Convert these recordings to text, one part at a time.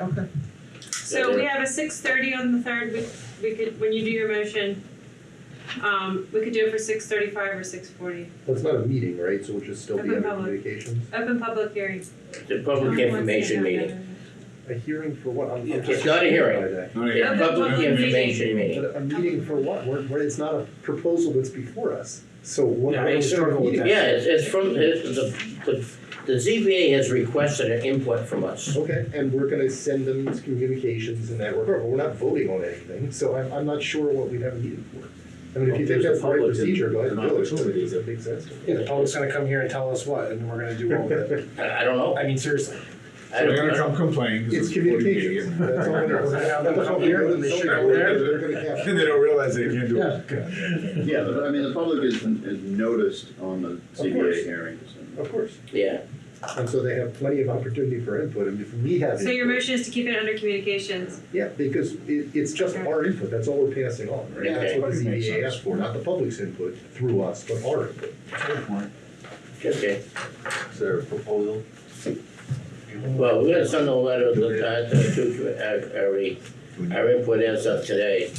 Okay. So we have a six thirty on the third, we, we could, when you do your motion, um, we could do it for six thirty-five or six forty. Well, it's not a meeting, right, so it should still be Open under public. communications? Open public hearing. The public Everyone wants to information have meeting. A hearing for what? I'm- I'm It's just- not a hearing. By that. Alright, The Yeah. public Public information meeting. But a meeting for what? We're, we're, it's not a proposal that's before us, so what? Yeah, I struggle with that. Yeah, it's, it's from, it's, the, the, the ZBA has requested an input from us. Okay, and we're gonna send them these communications and that, we're, but we're not voting on anything, so I'm, I'm not sure what we'd have a meeting for. I mean, if you think that's the right procedure, go ahead and do it, I mean, does that make sense? Yeah, the public's gonna come here and tell us what, and we're gonna do all of it. I, I don't know. I mean, seriously. I don't, They're I gonna don't- come complain, cause It's it's recorded communications, meeting. that's all it is. They'll come here, and they shoot over there. They're gonna have- And they don't realize they can't do Yeah. it. Yeah, but I mean, the public is, is noticed on the course. CBA hearings. and- Of course, yeah, and so they have plenty of opportunity for input, and if we have. So your input- motion is to keep it under communications. Yeah, because it, it's just our input, that's all we're passing on, right? Yeah. That's what the Makes ZBA sense. asked for, not the public's input through us, but our input. okay. Is there a proposal? Well, we're gonna send a letter to the, uh, to, to, uh, every, our input as of today.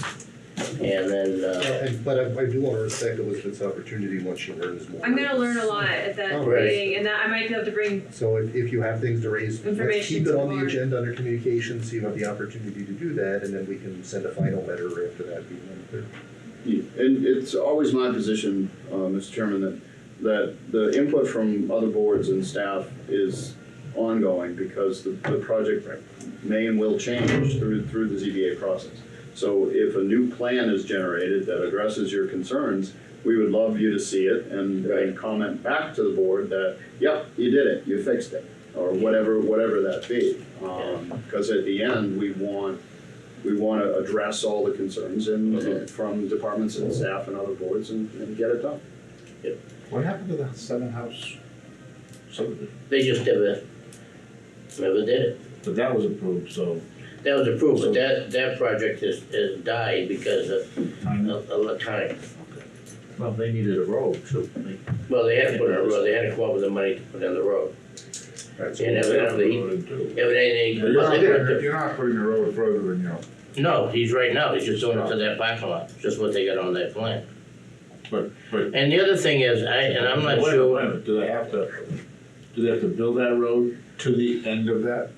And then, uh, And, but I, I do wanna respect Elizabeth's opportunity once she learns more. I'm gonna learn a lot at that Oh, right. meeting, and that I might be able to bring, So if, if you have things to raise, let's Information keep to it the on the board. agenda under communications, so you have the opportunity to do that, and then we can send a final letter after that. being on the third. Yeah, And it's always my position, uh, Mr. Chairman, that, that the input from other boards and staff is ongoing because the, the project may and will change through, through the ZBA process. So if a new plan is generated that addresses your concerns, we would love you to see it and, and comment back to the board that, yep, you did it, you fixed it, or whatever, whatever that be. Um, cause at the end, we want we want to address all the concerns and, and from departments and staff and other boards and, and get it done. What happened to the seven house subdivision? they just never, never did it. But that was approved, so That was approved, but that, that project is, is died because of, time up. of, of time. Well, they needed a road, so they. Well, they had to put in a road, they had to come up with the money to put in the road. Right, so And evidently, evidently, You're not, they putting- you're not putting the road further than you know, No, he's right now, he's just doing it to that parking lot, just what they got on that plan. but, but And the other thing is, I, and I'm not Wait a sure, minute, Do they have to, do they have to build that road? to the end of that,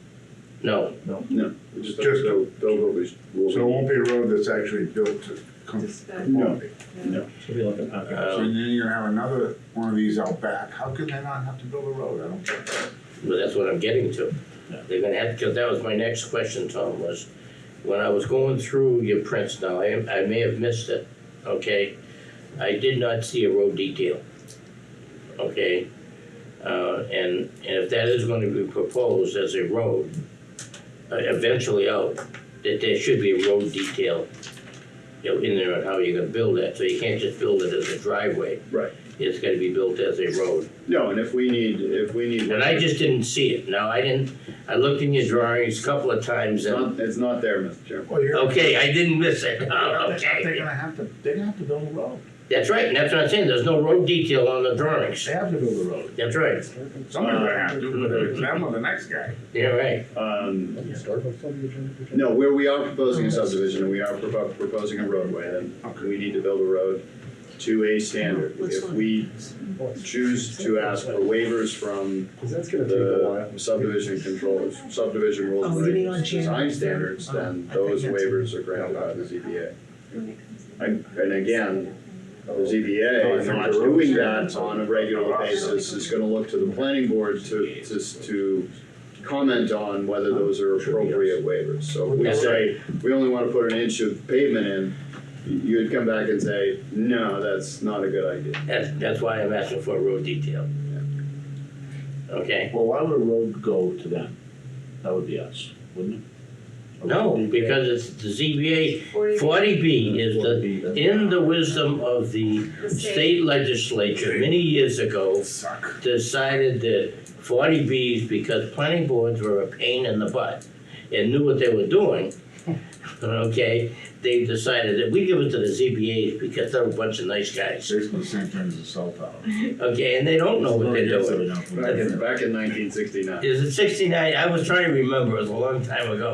no, It just, Just- they'll, they'll go be- will so it won't be a road that's actually built to come. Just, uh, No. Should be like a pocket. um, So Uh, then you're gonna have another one of these out back, how can they not have to build a road, I don't get that. but that's what I'm getting to. Yeah. They're gonna have, cause that was my next question, Tom, was, when I was going through your prints now, I, I may have missed it, okay? I did not see a road detail, okay? Uh, and, and if that is gonna be proposed as a road, uh, eventually out, that there should be a road detail, you know, in there on how you're gonna build that, so you can't just build it as a driveway. Right. It's gotta be built as a road. No, and if we need, if we need. And I just didn't see it. No, I didn't, I looked in your drawings a couple of times It's and, not, it's not there, Mr. Chairman. Well, you're. okay, I didn't miss it. They're- Oh, They're okay. gonna have to, they're gonna have to build a road. That's right, and that's what I'm saying, there's no road detail on the drawings. They have to build a road. That's right, Someone's gonna have to, whether it's them or the next guy. you're right. Um, Doesn't Starbucks on the agenda? for no, where we are proposing a subdivision and we are propo- proposing a roadway, then we need to build a road to a standard. If we tomorrow? choose to ask for waivers from Cause that's gonna take a the while. subdivision controls, subdivision rules Oh, and you mean on regulations, January Oh, design standards, then those waivers are granted by the ZBA. And, and again, the Oh, I ZBA think not the road doing standards that are- on a regular are- basis is gonna look to the planning board to, to, to comment on whether those are appropriate waivers. So if we That's say, we only wanna put an inch of pavement in, you'd come back and say, no, that's not a good idea. That's, that's why I'm asking for a road detail. Okay, Well, why would a road go to them? That would be us, wouldn't it? no, because it's the ZBA, Forty, forty B is the, in the wisdom of the the state. state legislature many years ago, Suck. decided that forty Bs, because planning boards were a pain in the butt and knew what they were doing, okay, they decided that we give it to the ZBAs because they're a bunch of nice guys, Basically the same thing as a cell tower. okay, and they don't know what they're doing. Back in, back in nineteen sixty-nine. Is it sixty-nine? I was trying to remember, it was a long time ago.